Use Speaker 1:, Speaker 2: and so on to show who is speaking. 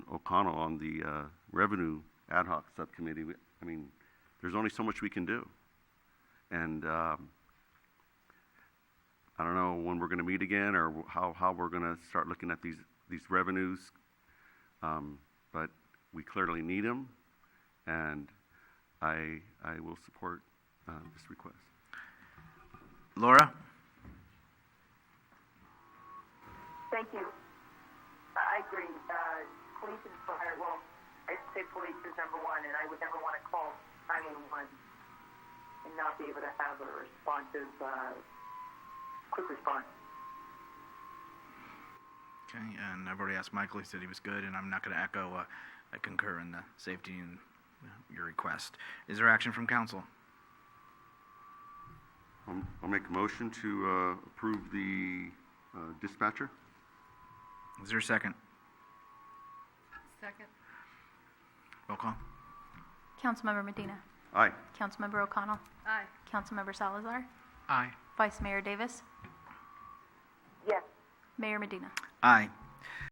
Speaker 1: O'Connell on the uh, Revenue Ad Hoc Subcommittee, we- I mean, there's only so much we can do. And um, I don't know when we're going to meet again or wh- how, how we're going to start looking at these, these revenues. Um, But we clearly need them, and I, I will support uh, this request.
Speaker 2: Laura?
Speaker 3: Thank you. I I agree. Uh, police and fire, well, I'd say police is number one, and I would never want to call 911 and not be able to have a responsive, uh, quick response.
Speaker 2: Okay, and I've already asked Michael, he said he was good, and I'm not going to echo, uh, I concur in the safety and uh, your request. Is there action from council?
Speaker 1: Um, I'll make a motion to uh, approve the uh, dispatcher.
Speaker 2: Is there a second?
Speaker 4: Second.
Speaker 2: Roll call?
Speaker 5: Councilmember Medina.
Speaker 1: Aye.
Speaker 5: Councilmember O'Connell.
Speaker 4: Aye.
Speaker 5: Councilmember Salazar.
Speaker 2: Aye.
Speaker 5: Vice Mayor Davis.
Speaker 3: Yes.
Speaker 5: Mayor Medina.
Speaker 2: Aye.